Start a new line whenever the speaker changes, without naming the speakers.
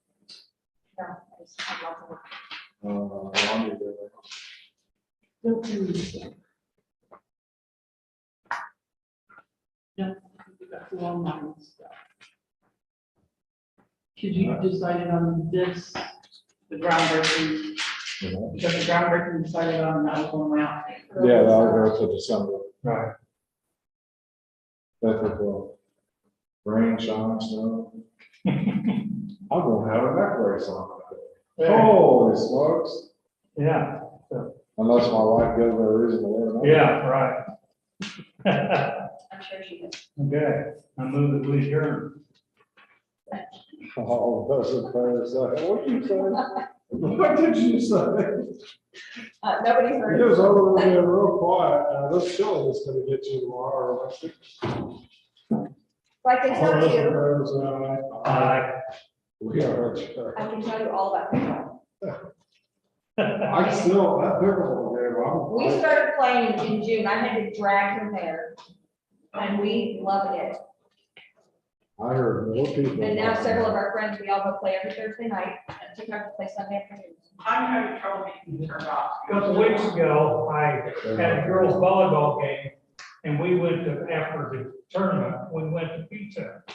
No, I just have lots of work.
Uh, laundry, they're like,
No, please.
Yeah, we got the long line stuff. Because you decided on this, the groundbreaking,
you know.
because the groundbreaking decided on that was one way out.
Yeah, that was also December.
Right.
That's what, rain, shine, snow. I'm gonna have a necklace on. Holy smokes,
Oh, Yeah,
unless my wife gives me a reason to wear it.
yeah, right.
I'm sure she is.
Okay, I move that we adjourn.
Oh, that's a fair say. What did you say? What did you say?
Uh, nobody's heard.
It was over there real quiet. Uh, this chili is gonna get you tomorrow. I think.
Well, I can
All
tell
those in
you,
favor say aye. Uh, We are adjourned.
I can tell you all about pickleball.
I still, that pickleball game,
We
I'm.
started playing in June. I had to drag him there. And we love it.
I heard more people.
And now several of our friends, we all go play every Thursday night and sometimes we play Sunday afternoons.
I'm having trouble making this turn off.
A Couple weeks ago, I had a girls volleyball game and we went to, after the tournament, we went to pizza.